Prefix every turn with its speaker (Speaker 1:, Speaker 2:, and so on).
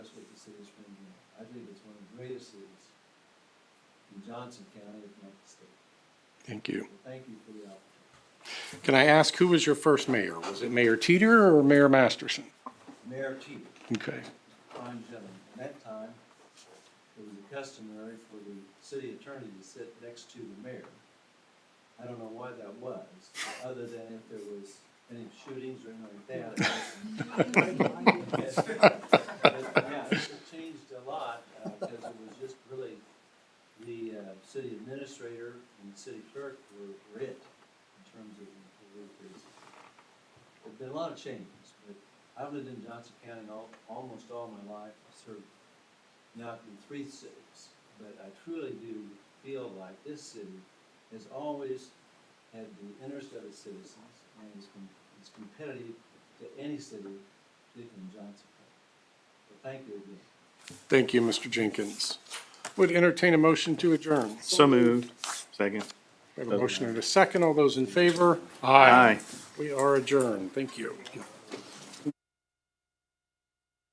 Speaker 1: citizens in Johnson County, if not the state.
Speaker 2: Thank you.
Speaker 1: So Thank you for the opportunity.
Speaker 2: Can I ask, who was your first mayor? Was it Mayor Teeter or Mayor Masterson?
Speaker 1: Mayor Teeter,
Speaker 2: Okay,
Speaker 1: fine gentleman, at that time, it was customary for the city attorney to sit next to the mayor. I don't know why that was, other than if there was any shootings or anything like that. But, Yeah, it changed a lot, uh, because it was just really, the, uh, city administrator and the city clerk were, were it uh, in terms of the work basis. There've been a lot of changes, but I've lived in Johnson County all, almost all my life, I served now in three cities, but I truly do feel like this city has always had the interest of its citizens and is, com- is competitive to any city, particularly in Johnson County. So thank you again.
Speaker 2: thank you, Mr. Jenkins. Would entertain a motion to adjourn.
Speaker 3: So moved. Second.
Speaker 2: We have a motion and a second. All those in favor?
Speaker 3: Aye.
Speaker 2: We are adjourned. Thank you.